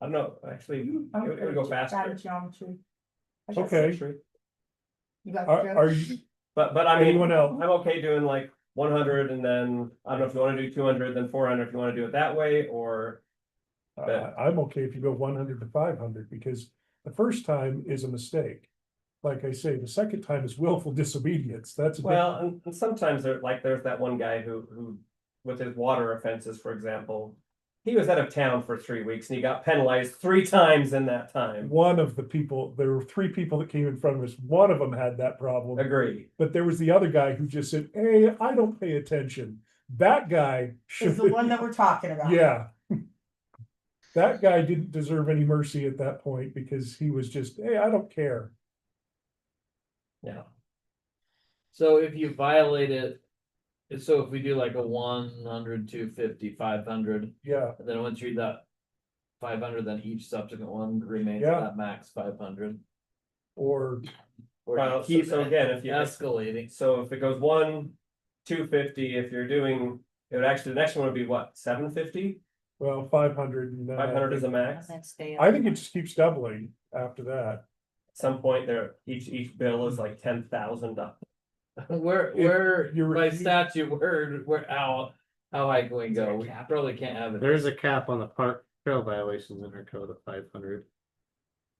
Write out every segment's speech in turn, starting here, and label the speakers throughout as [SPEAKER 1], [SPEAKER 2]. [SPEAKER 1] I don't know, actually, it would it would go faster.
[SPEAKER 2] Geometry. I guess.
[SPEAKER 3] Okay,
[SPEAKER 2] You got
[SPEAKER 3] are,
[SPEAKER 2] the
[SPEAKER 3] are
[SPEAKER 2] joke?
[SPEAKER 3] you,
[SPEAKER 1] But, but I mean,
[SPEAKER 3] anyone else?
[SPEAKER 1] I'm okay doing like one hundred and then, I don't know if you wanna do two hundred, then four hundred, if you wanna do it that way, or.
[SPEAKER 3] I, I- uh, I'm okay if you go one hundred to five hundred, because the first time is a mistake. Like I say, the second time is willful disobedience, that's. a different-
[SPEAKER 1] Well, and, and sometimes there, like, there's that one guy who, who, with his water offenses, for example. He was out of town for three weeks and he got penalized three times in that time.
[SPEAKER 3] One of the people, there were three people that came in front of us, one of them had that problem,
[SPEAKER 1] Agree.
[SPEAKER 3] but there was the other guy who just said, hey, I don't pay attention. That guy
[SPEAKER 2] Is
[SPEAKER 3] should,
[SPEAKER 2] the one that we're talking about.
[SPEAKER 3] yeah. That guy didn't deserve any mercy at that point, because he was just, hey, I don't care.
[SPEAKER 4] So if you violate it, if- so if we do like a 100, 250, 500,
[SPEAKER 3] Yeah,
[SPEAKER 4] and then once you read that. Five hundred, then each subsequent one remains
[SPEAKER 3] Yeah.
[SPEAKER 4] at that max five hundred.
[SPEAKER 3] or
[SPEAKER 4] Or you
[SPEAKER 1] Well, so-
[SPEAKER 4] keep
[SPEAKER 1] so again, if you-
[SPEAKER 4] Escalating,
[SPEAKER 1] So if it goes one, two fifty, if you're doing, it would actually, the next one would be what, seven fifty?
[SPEAKER 3] Well, five hundred and. uh,
[SPEAKER 1] Five hundred is a max. At
[SPEAKER 3] I think it just keeps doubling after that.
[SPEAKER 1] some point there, each, each bill is like ten thousand dollars.
[SPEAKER 4] we're,
[SPEAKER 3] If
[SPEAKER 4] we're,
[SPEAKER 3] you're-
[SPEAKER 4] by
[SPEAKER 3] you-
[SPEAKER 4] statute, we're, we're out, how high can we go? We probably can't have it.
[SPEAKER 5] There is a cap on the park trail violations in our code of five hundred.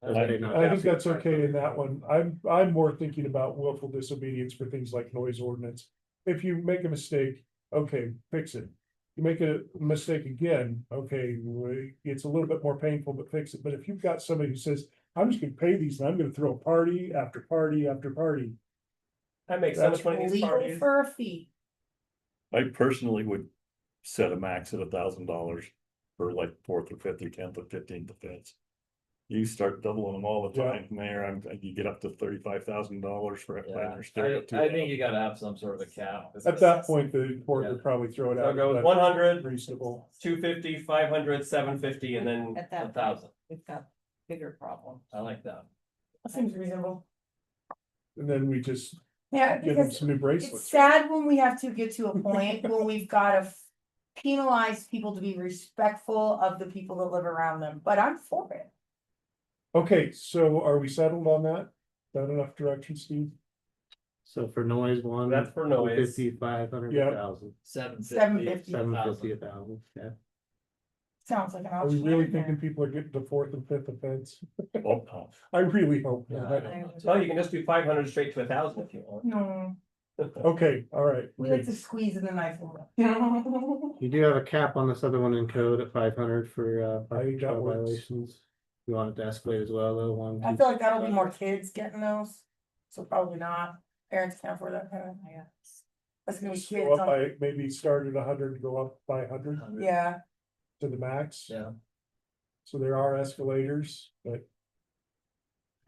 [SPEAKER 3] I think that's okay in that one. I'm, I'm more thinking about willful disobedience for things like noise ordinance. If you make a mistake, okay, fix it. You make a mistake again, okay, we- it's a little bit more painful, but fix it. But if you've got somebody who says, I'm just gonna pay these and I'm gonna throw a party after party after party.
[SPEAKER 1] I make so much money at these
[SPEAKER 2] Legal
[SPEAKER 1] parties.
[SPEAKER 2] for a fee.
[SPEAKER 6] I personally would set a max at a thousand dollars for like fourth or fifth or tenth or fifteenth offense. You start doubling them all the
[SPEAKER 3] Yeah.
[SPEAKER 6] time, Mayor, I'm, you get up to thirty-five thousand dollars for. a
[SPEAKER 4] Yeah,
[SPEAKER 6] planner stare at two
[SPEAKER 4] I, I think
[SPEAKER 6] thousand.
[SPEAKER 4] you gotta have some sort of a cap.
[SPEAKER 3] At that point, the court would probably throw it
[SPEAKER 1] So
[SPEAKER 3] out.
[SPEAKER 1] I'll go with one hundred,
[SPEAKER 3] Reasonable.
[SPEAKER 1] two fifty, five hundred, seven fifty, and then
[SPEAKER 7] At
[SPEAKER 4] A
[SPEAKER 7] that point,
[SPEAKER 4] thousand,
[SPEAKER 7] we've got bigger problems.
[SPEAKER 4] I like that.
[SPEAKER 2] That seems reasonable.
[SPEAKER 3] And then we just
[SPEAKER 2] Yeah,
[SPEAKER 3] give them
[SPEAKER 2] because
[SPEAKER 3] some new
[SPEAKER 2] it's
[SPEAKER 3] bracelets.
[SPEAKER 2] sad when we have to get to a point when we've gotta f- penalize people to be respectful of the people that live around them, but I'm for it.
[SPEAKER 3] Okay, so are we settled on that? That enough direction, Steve?
[SPEAKER 5] So for noise one.
[SPEAKER 1] that's for noise.
[SPEAKER 5] Fifty, five hundred,
[SPEAKER 3] Yeah.
[SPEAKER 5] a thousand,
[SPEAKER 4] Seven
[SPEAKER 2] Seven
[SPEAKER 4] fifty,
[SPEAKER 2] fifty
[SPEAKER 5] seven
[SPEAKER 4] thousand.
[SPEAKER 5] fifty, a thousand, yeah.
[SPEAKER 2] sounds like an
[SPEAKER 3] Are we
[SPEAKER 2] option.
[SPEAKER 3] really
[SPEAKER 2] in there.
[SPEAKER 3] thinking people are getting the fourth and fifth offense?
[SPEAKER 6] Oh, no.
[SPEAKER 3] I really hope
[SPEAKER 4] Yeah, I
[SPEAKER 3] not.
[SPEAKER 4] don't know.
[SPEAKER 1] Well, you can just do five hundred straight to a thousand if you want.
[SPEAKER 2] No,
[SPEAKER 3] Okay, all right.
[SPEAKER 2] we like to squeeze in the knife a little.
[SPEAKER 5] You do have a cap on this other one in code at five hundred for uh
[SPEAKER 3] I
[SPEAKER 5] park
[SPEAKER 3] think that
[SPEAKER 5] trail
[SPEAKER 3] works.
[SPEAKER 5] violations. You want it to escalate as well, though,
[SPEAKER 2] I
[SPEAKER 5] one, two,
[SPEAKER 2] feel like that'll be more kids getting those, so probably not, parents can't afford that kind of,
[SPEAKER 7] Yeah.
[SPEAKER 2] that's gonna be kids
[SPEAKER 3] Go up
[SPEAKER 2] on,
[SPEAKER 3] by, maybe start at hundred, go up by hundred
[SPEAKER 2] yeah,
[SPEAKER 3] to the max.
[SPEAKER 4] Yeah.
[SPEAKER 3] So there are escalators, but.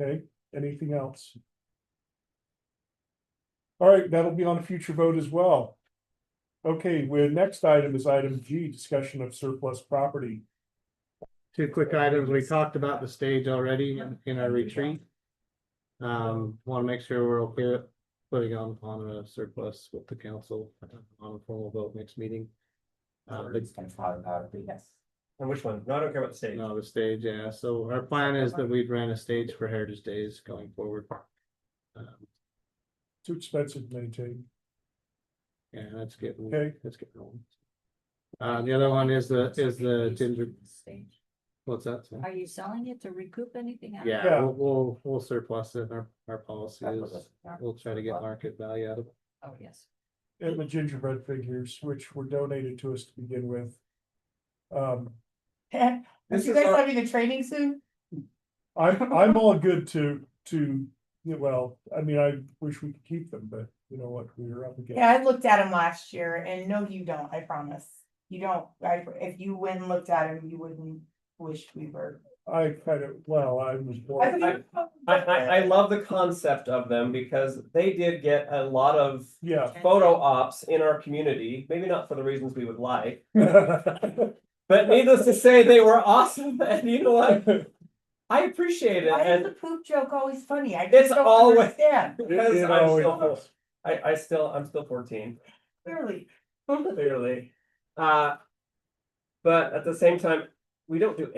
[SPEAKER 3] Okay, anything else? All right, that'll be on a future vote as well. Okay, we're, next item is item G, discussion of surplus property.
[SPEAKER 5] two quick items. We talked about the stage already in- in our retreat. Um, wanna make sure we're okay with putting on on a surplus with the council on a formal vote next meeting. Uh, the-
[SPEAKER 2] yes.
[SPEAKER 1] And which one? No, I don't care about the stage.
[SPEAKER 5] No, the stage, yeah, so our plan is that we'd rent a stage for Heritage Days going forward. Um,
[SPEAKER 3] Too expensive to maintain.
[SPEAKER 5] Yeah, that's getting,
[SPEAKER 3] Okay.
[SPEAKER 5] that's getting old. Uh, the other one is the, is the ginger,
[SPEAKER 7] Stage.
[SPEAKER 5] what's that? Sam?
[SPEAKER 7] Are you selling it to recoup anything? out of
[SPEAKER 5] Yeah,
[SPEAKER 3] Yeah.
[SPEAKER 5] we'll, we'll, we'll surplus it, our, our policy
[SPEAKER 7] That was
[SPEAKER 5] is,
[SPEAKER 7] a-
[SPEAKER 5] we'll try to get market value out of it.
[SPEAKER 7] it? Oh, yes.
[SPEAKER 3] and the gingerbread figures, which were donated to us to begin with. Um,
[SPEAKER 2] Are
[SPEAKER 3] This
[SPEAKER 2] you
[SPEAKER 3] is
[SPEAKER 2] guys
[SPEAKER 3] our-
[SPEAKER 2] having a training soon?
[SPEAKER 3] I'm, I'm all good to, to, yeah, well, I mean, I wish we could keep them, but you know what, we were up against.
[SPEAKER 2] Yeah, I looked at him last year and no, you don't, I promise. You don't, I, if you went and looked at him, you wouldn't wish we were.
[SPEAKER 3] I kind of, well, I was
[SPEAKER 2] I
[SPEAKER 3] born,
[SPEAKER 2] think-
[SPEAKER 1] I, I, I love the concept of them because they did get a lot of
[SPEAKER 3] yeah.
[SPEAKER 1] photo ops in our community, maybe not for the reasons we would like.
[SPEAKER 3] I
[SPEAKER 1] But needless to say, they were awesome and you know what? I appreciate it
[SPEAKER 2] Why is
[SPEAKER 1] and
[SPEAKER 2] the poop joke always funny? I
[SPEAKER 1] It's
[SPEAKER 2] just don't
[SPEAKER 1] always-
[SPEAKER 2] understand,
[SPEAKER 1] because
[SPEAKER 3] It- it
[SPEAKER 1] I'm
[SPEAKER 3] always
[SPEAKER 1] still, four-
[SPEAKER 3] is.
[SPEAKER 1] I, I still, I'm still fourteen.
[SPEAKER 2] clearly.
[SPEAKER 1] Clearly. Uh, but at the same time, we don't do